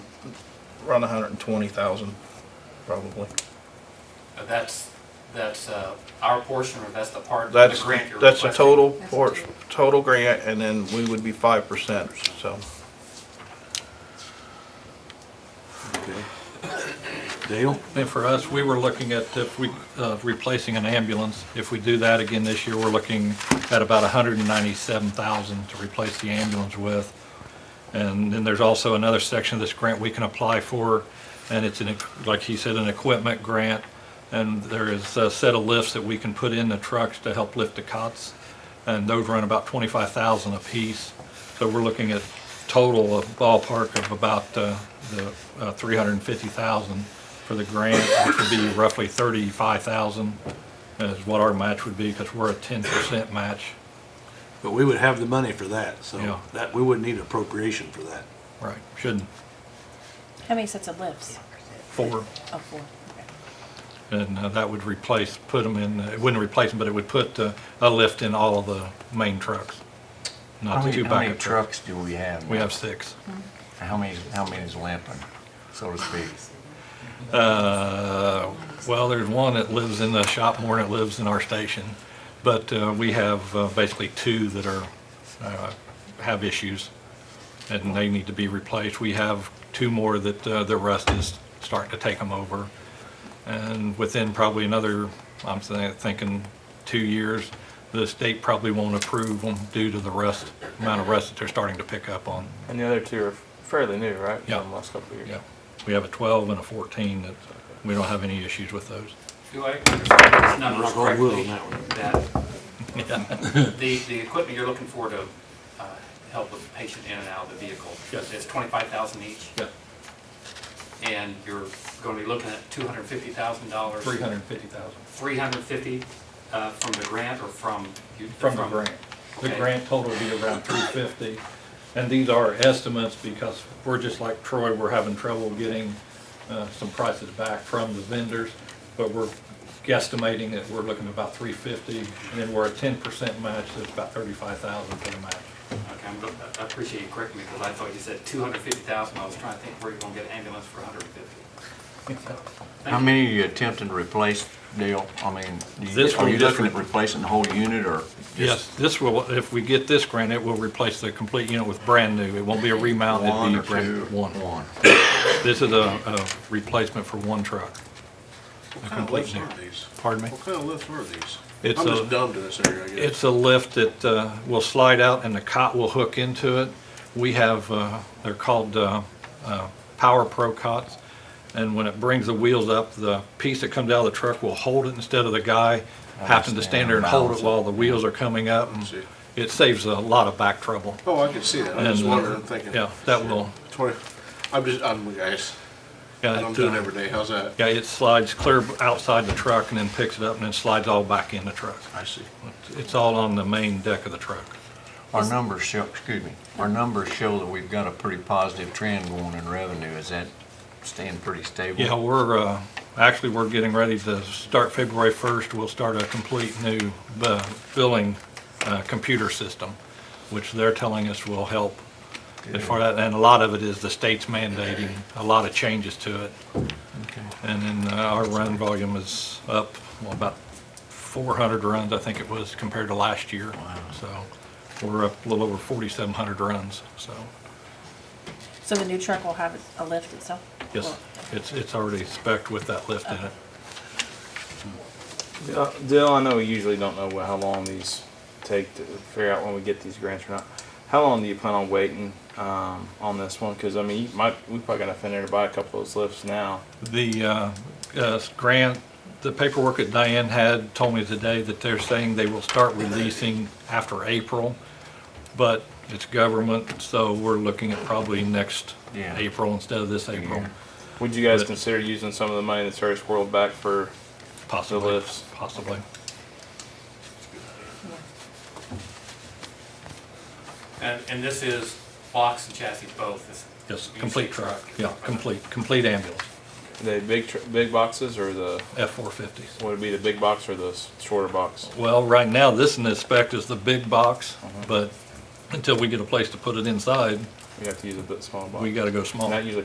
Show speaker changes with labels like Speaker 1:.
Speaker 1: around hundred and twenty thousand, probably.
Speaker 2: Uh, That's, that's uh, our portion, or that's the part of the
Speaker 1: That's,
Speaker 2: grant you're requesting?
Speaker 1: that's a total,
Speaker 3: That's
Speaker 1: por-
Speaker 3: total.
Speaker 1: total grant, and then we would be five percent, so.
Speaker 4: Okay. Dale?
Speaker 5: And for us, we were looking at if we, uh, replacing an ambulance. If we do that again this year, we're looking at about 197,000 to replace the ambulance with. And then there's also another section of this grant we can apply for, and it's an, like he said, an equipment grant. And there is a set of lifts that we can put in the trucks to help lift the cots, and those run about 25,000 apiece. So we're looking at total of ballpark of about uh, the uh, 350,000 for the grant, which would be roughly 35,000 is what our match would be, because we're a 10% match.
Speaker 4: But we would have the money for that, so
Speaker 5: Yeah.
Speaker 4: that, we wouldn't need appropriation for that.
Speaker 5: Right, shouldn't,
Speaker 3: How many sets of lifts?
Speaker 5: four.
Speaker 3: Oh, four. Okay.
Speaker 5: And uh, that would replace, put them in, it wouldn't replace them, but it would put uh, a lift in all of the main trucks,
Speaker 6: How
Speaker 5: not the
Speaker 6: many,
Speaker 5: two
Speaker 6: how many
Speaker 5: backup trucks.
Speaker 6: trucks do we have?
Speaker 5: We have six.
Speaker 6: How many, how many is lamping, so to speak?
Speaker 5: Uh, Well, there's one that lives in the shop more than it lives in our station, but uh, we have uh, basically two that are, uh, have issues, and they need to be replaced. We have two more that uh, the rust is starting to take them over. And within probably another, I'm thi- thinking, two years, the state probably won't approve them due to the rust, amount of rust that they're starting to pick up on.
Speaker 7: And the other two are fairly new, right?
Speaker 5: Yeah.
Speaker 7: From the last couple of years.
Speaker 5: Yeah, we have a 12 and a 14 that we don't have any issues with those.
Speaker 2: Do I understand these numbers
Speaker 4: Rock on wood
Speaker 2: correctly?
Speaker 4: on that one.
Speaker 2: That the, the equipment you're looking for to uh, help with the patient in and out of the vehicle?
Speaker 5: Yes.
Speaker 2: It's 25,000 each?
Speaker 5: Yeah.
Speaker 2: And you're going to be looking at $250,000?
Speaker 5: 350,000.
Speaker 2: 350 uh, from the grant or from? you-
Speaker 5: From the grant. The
Speaker 2: Okay.
Speaker 5: grant total will be around 350. And these are estimates because we're just like Troy, we're having trouble getting uh, some prices back from the vendors. But we're guesstimating that we're looking at about 350 and then we're a 10% match, so it's about 35,000 for the match.
Speaker 2: Okay, I'm look- I appreciate you correcting me because I thought you said 250,000. I was trying to think where you're going to get an ambulance for 150. So, thank
Speaker 6: How
Speaker 2: you.
Speaker 6: many are you attempting to replace, Dale? I mean, do you-
Speaker 5: This
Speaker 6: are
Speaker 5: one
Speaker 6: you
Speaker 5: just
Speaker 6: looking at
Speaker 5: re-
Speaker 6: replacing the whole unit or
Speaker 5: Yes,
Speaker 6: just
Speaker 5: this will, if we get this grant, it will replace the complete unit with brand new. It won't be a remount, it'll
Speaker 6: one
Speaker 5: be
Speaker 6: or
Speaker 5: brand
Speaker 6: two?
Speaker 5: new. One.
Speaker 6: One.
Speaker 5: This is a, a replacement for one truck.
Speaker 8: What
Speaker 5: A
Speaker 8: kind of
Speaker 5: complete
Speaker 8: lifts
Speaker 5: new.
Speaker 8: are these?
Speaker 5: Pardon me?
Speaker 8: What kind of lifts are these?
Speaker 5: It's
Speaker 8: I'm
Speaker 5: a-
Speaker 8: just dumb to this area, I guess.
Speaker 5: It's a lift that uh, will slide out and the cot will hook into it. We have, uh, they're called uh, uh, Power Pro cots. And when it brings the wheels up, the piece that comes out of the truck will hold it instead of the guy having to stand there and hold it while the wheels are coming up. and
Speaker 8: See.
Speaker 5: It saves a lot of back trouble.
Speaker 8: Oh, I can see that. I'm just
Speaker 5: And, uh,
Speaker 8: wondering, I'm thinking.
Speaker 5: Yeah, that will,
Speaker 8: Twenty, I'm just, I'm, guys,
Speaker 5: yeah.
Speaker 8: I'm
Speaker 5: it,
Speaker 8: doing
Speaker 5: uh,
Speaker 8: every day. How's that?
Speaker 5: Yeah, it slides clear outside the truck and then picks it up and then slides all back in the truck.
Speaker 8: I see.
Speaker 5: It's all on the main deck of the truck.
Speaker 6: Our numbers show, excuse me, our numbers show that we've got a pretty positive trend going in revenue. Is that staying pretty stable?
Speaker 5: Yeah, we're, uh, actually, we're getting ready to start February 1st. We'll start a complete new uh, billing uh, computer system, which they're telling us will help as far as, and a lot of it is the state's mandating, a lot of changes to it.
Speaker 6: Okay.
Speaker 5: And then uh, our run volume is up well, about 400 runs, I think it was, compared to last year. So we're up a little over 4,700 runs, so,
Speaker 3: So the new truck will have a lift itself?
Speaker 5: yes,
Speaker 3: Well,
Speaker 5: it's, it's already spec'd with that lift in it.
Speaker 7: Uh, Dale, I know we usually don't know wh- how long these take to figure out when we get these grants or not. How long do you plan on waiting um, on this one? Because I mean, you might we probably got enough in there to buy a couple of those lifts now.
Speaker 5: The uh, uh, grant, the paperwork that Diane had told me today that they're saying they will start releasing after April, but it's government, so we're looking at probably next
Speaker 6: Yeah.
Speaker 5: April instead of this April,
Speaker 6: Yeah.
Speaker 7: Would you guys
Speaker 5: But-
Speaker 7: consider using some of the money that's already squirreled back for? The
Speaker 5: possibly,
Speaker 7: lifts.
Speaker 5: possibly.
Speaker 2: And, and this is box and chassis both? this-
Speaker 5: Yes,
Speaker 2: you
Speaker 5: complete
Speaker 2: say
Speaker 5: truck, yeah, complete, complete ambulance,
Speaker 7: The big tr- big boxes or the
Speaker 5: F-450s.
Speaker 7: would it be the big box or the s- shorter box?
Speaker 5: Well, right now, this in this spec is the big box,
Speaker 6: Uh-huh.
Speaker 5: but until we get a place to put it inside,
Speaker 7: We have to use a bit smaller box.
Speaker 5: we gotta go small.
Speaker 7: And that usually